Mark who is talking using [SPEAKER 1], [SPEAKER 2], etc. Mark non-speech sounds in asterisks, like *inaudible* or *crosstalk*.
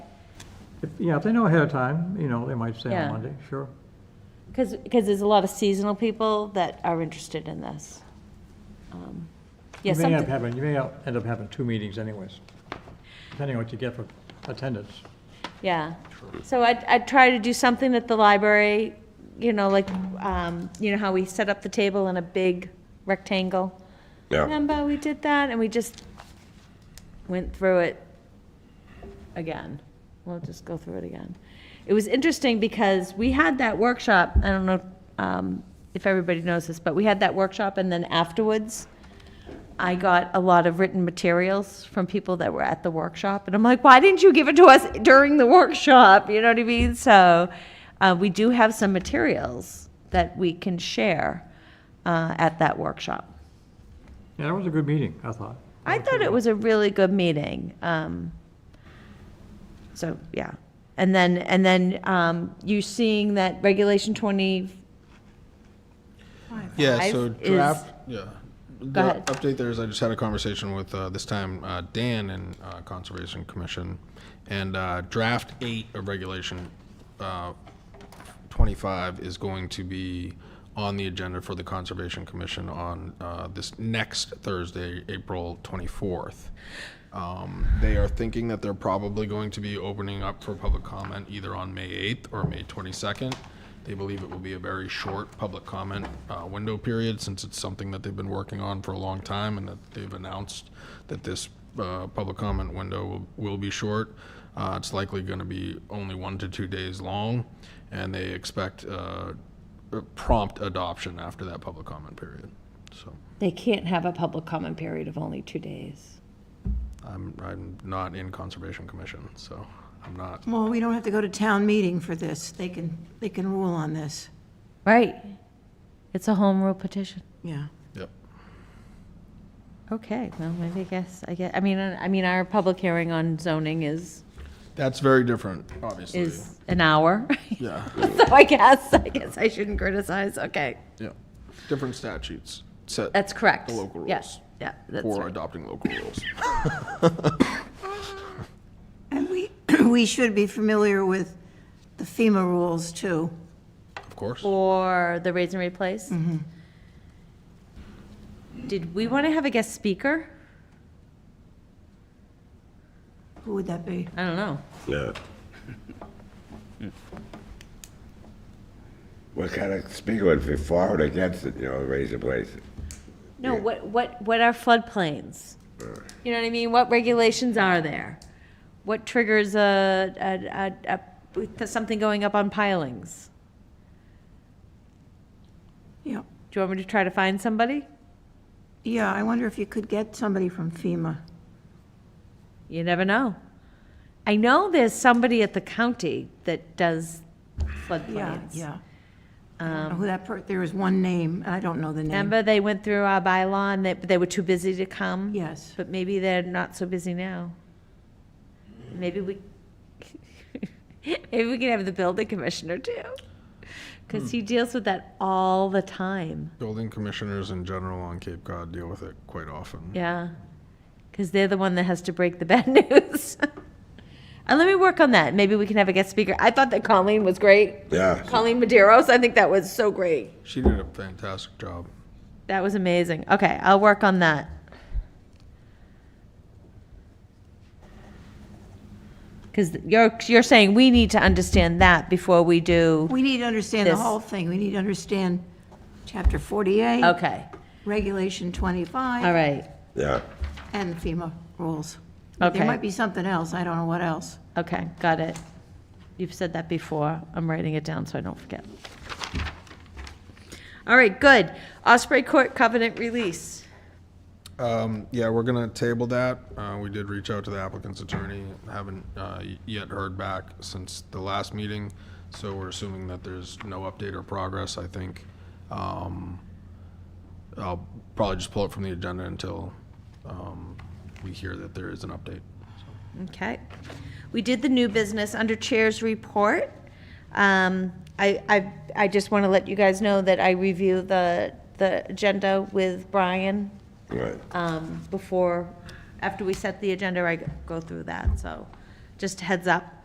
[SPEAKER 1] If, yeah, if they know ahead of time, you know, they might say
[SPEAKER 2] Yeah.
[SPEAKER 1] on Monday, sure.
[SPEAKER 2] Because, because there's a lot of seasonal people that are interested in this. Um, Yeah,
[SPEAKER 1] You may end up
[SPEAKER 2] something,
[SPEAKER 1] having, you may out- end up having two meetings anyways, depending on what you get for attendance.
[SPEAKER 2] yeah. So I'd, I'd try to do something at the library, you know, like, um, you know how we set up the table in a big rectangle?
[SPEAKER 3] Yeah,
[SPEAKER 2] Remember, we did that, and we just went through it again. We'll just go through it again. It was interesting because we had that workshop, I don't know um, if everybody knows this, but we had that workshop, and then afterwards, I got a lot of written materials from people that were at the workshop, and I'm like, why didn't you give it to us during the workshop? You know what I mean? So uh, we do have some materials that we can share uh, at that workshop.
[SPEAKER 1] Yeah, that was a good meeting, I thought.
[SPEAKER 2] I thought it was a really good meeting. Um, so yeah, and then and then um, you seeing that regulation twenty.
[SPEAKER 4] Yeah,
[SPEAKER 2] Five
[SPEAKER 4] so
[SPEAKER 2] is-
[SPEAKER 4] draft, yeah. The
[SPEAKER 2] ahead.
[SPEAKER 4] update there is I just had a conversation with, uh, this time, uh, Dan and, uh, Conservation Commission. And, uh, draft eight of regulation, uh, twenty-five is going to be on the agenda for the Conservation Commission on, uh, this next Thursday, April twenty-fourth. Um, they are thinking that they're probably going to be opening up for public comment either on May 8th or May 22nd. They believe it will be a very short public comment uh, window period since it's something that they've been working on for a long time and that they've announced that this uh, public comment window will, will be short. Uh, It's likely going to be only one to two days long, and they expect uh, prompt adoption after that public comment period. So
[SPEAKER 2] They can't have a public comment period of only two days.
[SPEAKER 4] I'm, I'm not in Conservation Commission, so I'm not
[SPEAKER 5] Well, we don't have to go to town meeting for this. They can, they can rule on this.
[SPEAKER 2] Right. It's a home rule petition.
[SPEAKER 5] Yeah.
[SPEAKER 4] Yep.
[SPEAKER 2] Okay. Well, maybe I guess I guess I mean uh, I mean our public hearing on zoning is
[SPEAKER 4] That's very different, obviously.
[SPEAKER 2] is an hour. *laughs*
[SPEAKER 4] Yeah,
[SPEAKER 2] so I guess I guess I shouldn't criticize. Okay.
[SPEAKER 4] yeah. Different statutes set
[SPEAKER 2] That's correct.
[SPEAKER 4] The local
[SPEAKER 2] Yeah.
[SPEAKER 4] rules.
[SPEAKER 2] Yeah. That's
[SPEAKER 4] for
[SPEAKER 2] right.
[SPEAKER 4] adopting local rules.
[SPEAKER 2] *laughs*
[SPEAKER 5] And we, *clears throat* we should be familiar with the FEMA rules, too.
[SPEAKER 4] Of course.
[SPEAKER 2] For the raise and replace?
[SPEAKER 5] Mm-hmm.
[SPEAKER 2] Did we want to have a guest speaker?
[SPEAKER 5] Who would that be?
[SPEAKER 2] I don't know.
[SPEAKER 3] yeah. What kind of speaker would be for or against it, you know, raise the place?
[SPEAKER 2] No, what, what, what are floodplains? You know what I mean? What regulations are there? What triggers a, a, a, a, something going up on pilings?
[SPEAKER 5] Yeah.
[SPEAKER 2] Do you want me to try to find somebody?
[SPEAKER 5] Yeah, I wonder if you could get somebody from FEMA.
[SPEAKER 2] You never know. I know there's somebody at the county that does
[SPEAKER 5] Yeah,
[SPEAKER 2] floodplains.
[SPEAKER 5] yeah. I don't
[SPEAKER 2] Um,
[SPEAKER 5] know Who that, per- there is one name, and I don't know the name.
[SPEAKER 2] Remember, they went through our bylaw and they, they were too busy to come?
[SPEAKER 5] Yes.
[SPEAKER 2] But maybe they're not so busy now. Maybe we, *laughs* maybe we can have the building commissioner too. Because he deals with that all the time,
[SPEAKER 4] Building commissioners in general on Cape Cod deal with it quite often.
[SPEAKER 2] yeah. Because they're the one that has to break the *laughs* bad news. And let me work on that, maybe we can have a guest speaker. I thought that Colleen was great,
[SPEAKER 3] Yeah,
[SPEAKER 2] Colleen Maderos, I think that was so great.
[SPEAKER 4] She did a fantastic job.
[SPEAKER 2] That was amazing. Okay, I'll work on that. Because you're, you're saying we need to understand that before we do,
[SPEAKER 5] We need to understand the
[SPEAKER 2] This.
[SPEAKER 5] whole thing. We need to understand Chapter 48,
[SPEAKER 2] okay,
[SPEAKER 5] Regulation 25.
[SPEAKER 2] all right,
[SPEAKER 3] yeah.
[SPEAKER 5] And FEMA rules.
[SPEAKER 2] Okay.
[SPEAKER 5] There might be something else, I don't know what else.
[SPEAKER 2] okay, got it. You've said that before, I'm writing it down so I don't forget. All right, good. Osprey Court covenant release.
[SPEAKER 4] Um, yeah, we're gonna table that. Uh, we did reach out to the applicant's attorney, haven't, uh, y- yet heard back since the last meeting. So we're assuming that there's no update or progress, I think. Um, I'll probably just pull it from the agenda until, um, we hear that there is an update.
[SPEAKER 2] Okay. We did the new business under Chair's report. Um, I, I, I just want to let you guys know that I review the, the agenda with Brian
[SPEAKER 3] Right.
[SPEAKER 2] um, before, after we set the agenda, I go through that, so just heads up.